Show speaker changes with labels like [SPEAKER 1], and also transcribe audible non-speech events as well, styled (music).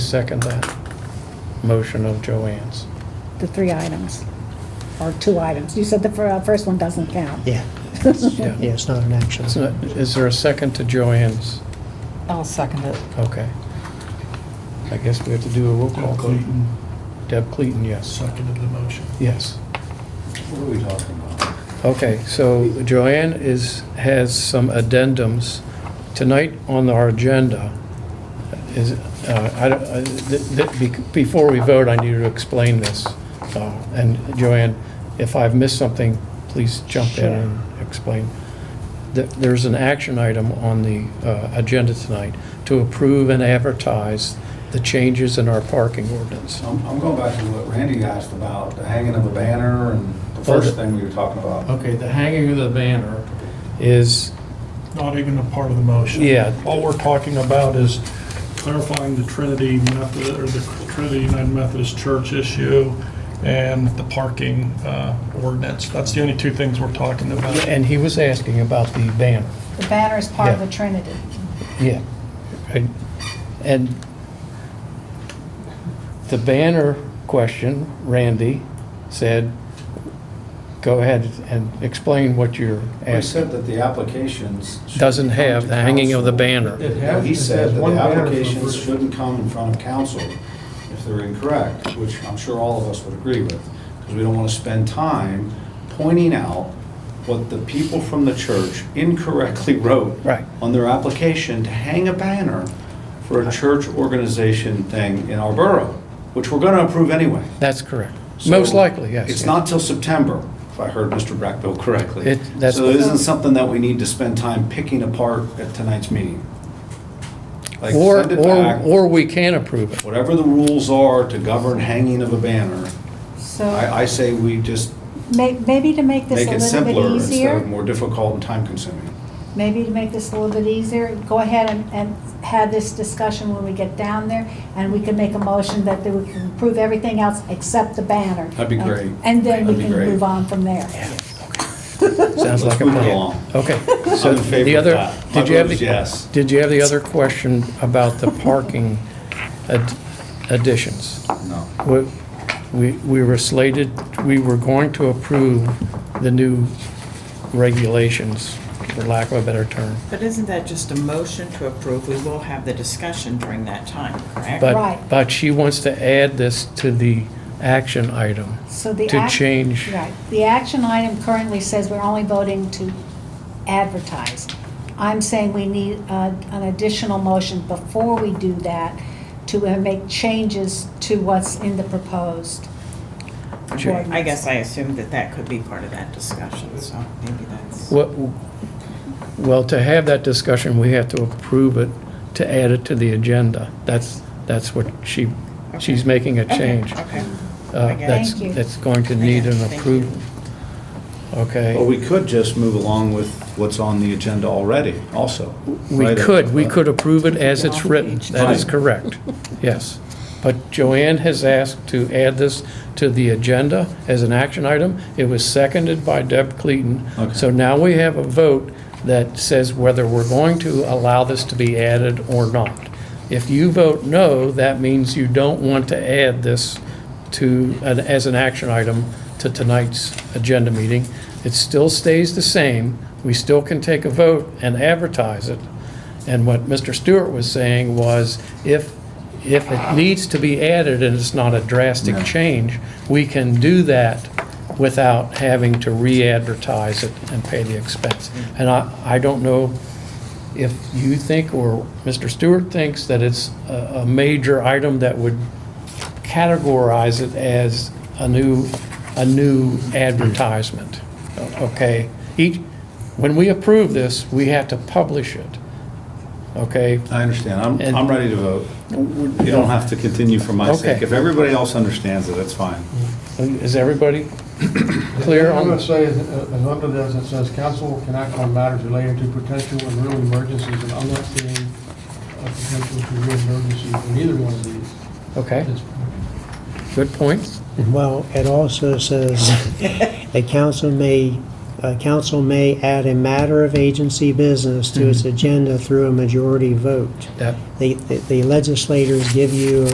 [SPEAKER 1] second that motion of Joanne's.
[SPEAKER 2] the three items, or two items. You said the fir- uh, first one doesn't count.
[SPEAKER 3] Yeah,
[SPEAKER 1] Yeah.
[SPEAKER 3] yeah, it's not an action.
[SPEAKER 1] Is there- Is there a second to Joanne's?
[SPEAKER 4] I'll second it.
[SPEAKER 1] Okay. I guess we have to do a roll call.
[SPEAKER 5] Doug Clayton
[SPEAKER 1] Deb Clayton, yes.
[SPEAKER 5] seconded the motion.
[SPEAKER 1] Yes.
[SPEAKER 6] What are we talking about?
[SPEAKER 1] Okay, so Joanne is, has some addendums. Tonight on our agenda is, uh, I don't, I- th- th- bec- before we vote, I need to explain this. Uh, And Joanne, if I've missed something, please jump in and explain. Th- There's an action item on the uh, agenda tonight to approve and advertise the changes in our parking ordinance.
[SPEAKER 6] I'm, I'm going back to what Randy asked about, the hanging of a banner and the first thing we were talking about.
[SPEAKER 1] Okay, the hanging of the banner is,
[SPEAKER 5] Not even a part of the motion.
[SPEAKER 1] Yeah.
[SPEAKER 5] All we're talking about is clarifying the Trinity Method, or the Trinity United Methodist Church issue and the parking uh, ordinance. That's the only two things we're talking about.
[SPEAKER 1] and he was asking about the banner.
[SPEAKER 2] The banner is part of
[SPEAKER 1] Yeah.
[SPEAKER 2] the Trinity.
[SPEAKER 1] Yeah, and- and the banner question, Randy said, go ahead and explain what you're
[SPEAKER 6] We
[SPEAKER 1] asking.
[SPEAKER 6] said that the applications. should
[SPEAKER 1] Doesn't
[SPEAKER 6] come
[SPEAKER 1] have
[SPEAKER 6] to
[SPEAKER 1] the hanging of the
[SPEAKER 6] council.
[SPEAKER 1] banner.
[SPEAKER 6] No, He said that the applications shouldn't come in front of council if they're incorrect, which I'm sure all of us would agree with, because we don't want to spend time pointing out what the people from the church incorrectly (laughs) wrote
[SPEAKER 1] Right.
[SPEAKER 6] on their application to hang a banner for a church organization thing in our borough, which we're going to approve anyway.
[SPEAKER 1] That's correct.
[SPEAKER 6] So
[SPEAKER 1] Most likely, yes.
[SPEAKER 6] It's not till September, if I heard Mr. Brackbill correctly.
[SPEAKER 1] It- that's-
[SPEAKER 6] So it isn't something that we need to spend time picking apart at tonight's meeting. Like,
[SPEAKER 1] Or,
[SPEAKER 6] send it
[SPEAKER 1] or,
[SPEAKER 6] back,
[SPEAKER 1] or we can approve it.
[SPEAKER 6] whatever the rules are to govern hanging of a banner,
[SPEAKER 2] So
[SPEAKER 6] I, I say we just
[SPEAKER 2] may- maybe to make this
[SPEAKER 6] make
[SPEAKER 2] Uh, a little
[SPEAKER 6] it
[SPEAKER 2] bit
[SPEAKER 6] simpler instead of
[SPEAKER 2] easier,
[SPEAKER 6] more difficult and time consuming.
[SPEAKER 2] maybe to make this a little bit easier, go ahead and, and have this discussion when we get down there, and we can make a motion that we can approve everything else except the banner.
[SPEAKER 6] That'd be great.
[SPEAKER 2] And then we
[SPEAKER 6] That'd be
[SPEAKER 2] can
[SPEAKER 6] great.
[SPEAKER 2] move on from there.
[SPEAKER 1] Sounds like a
[SPEAKER 6] Let's move it
[SPEAKER 1] plan.
[SPEAKER 6] along.
[SPEAKER 1] Okay, (laughs) so
[SPEAKER 6] I'm in favor
[SPEAKER 1] the
[SPEAKER 6] of
[SPEAKER 1] other,
[SPEAKER 6] that. My
[SPEAKER 1] did you have
[SPEAKER 6] vote
[SPEAKER 1] the?
[SPEAKER 6] is yes.
[SPEAKER 1] Did you have the other question about the parking ad- additions?
[SPEAKER 6] No.
[SPEAKER 1] We, we we were slated, we were going to approve the new regulations, for lack of a better term.
[SPEAKER 7] But isn't that just a motion to approve? We will have the discussion during that time, correct?
[SPEAKER 2] Right.
[SPEAKER 1] But, but she wants to add this to the action item.
[SPEAKER 2] So the.
[SPEAKER 1] To
[SPEAKER 2] act-
[SPEAKER 1] change.
[SPEAKER 2] Right. The action item currently says we're only voting to advertise. I'm saying we need uh, an additional motion before we do that to uh, make changes to what's in the proposed.
[SPEAKER 1] Sure.
[SPEAKER 7] I guess I assumed that that could be part of that discussion, so maybe that's,
[SPEAKER 1] What- Well, to have that discussion, we have to approve it to add it to the agenda. That's, that's what she, she's making a change.
[SPEAKER 7] okay.
[SPEAKER 1] uh,
[SPEAKER 7] I get it.
[SPEAKER 1] that's-
[SPEAKER 2] Thank you.
[SPEAKER 1] That's going to
[SPEAKER 7] I
[SPEAKER 1] need
[SPEAKER 7] get it.
[SPEAKER 1] an
[SPEAKER 7] Thank you.
[SPEAKER 1] approval. Okay.
[SPEAKER 6] But we could just move along with what's on the agenda already also.
[SPEAKER 1] We
[SPEAKER 6] right?
[SPEAKER 1] could, we could approve it as it's written. That is
[SPEAKER 6] Fine.
[SPEAKER 1] correct, yes. But Joanne has asked to add this to the agenda as an action item. It was seconded by Deb Clayton.
[SPEAKER 6] Okay.
[SPEAKER 1] So now we have a vote that says whether we're going to allow this to be added or not. If you vote no, that means you don't want to add this to, an- as an action item to tonight's agenda meeting. It still stays the same. We still can take a vote and advertise it. And what Mr. Stewart was saying was, if, if it needs to be added and it's not a drastic
[SPEAKER 6] No.
[SPEAKER 1] change, we can do that without having to re-advertise it and pay the expense. And I, I don't know if you think, or Mr. Stewart thinks, that it's a, a major item that would categorize it as a new, a new advertisement, okay? Each, when we approve this, we have to publish it, okay?
[SPEAKER 6] I understand. I'm,
[SPEAKER 1] And-
[SPEAKER 6] I'm ready to vote. You don't have to continue for my sake.
[SPEAKER 1] Okay.
[SPEAKER 6] If everybody else understands it, that's fine.
[SPEAKER 1] Is everybody clear
[SPEAKER 8] I'm
[SPEAKER 1] on
[SPEAKER 8] going to
[SPEAKER 1] this?
[SPEAKER 8] say, uh, as under this, it says, "Council can act on matters relating to potential and real emergencies," and I'm not seeing a potential to real emergency in either one of these
[SPEAKER 1] Okay,
[SPEAKER 8] at this point.
[SPEAKER 1] good point.
[SPEAKER 3] Well, it also (laughs) says, "A council may, a council may add a matter of agency Mm-hmm. business to its agenda through a majority vote."
[SPEAKER 1] That,
[SPEAKER 3] The- The the legislators give you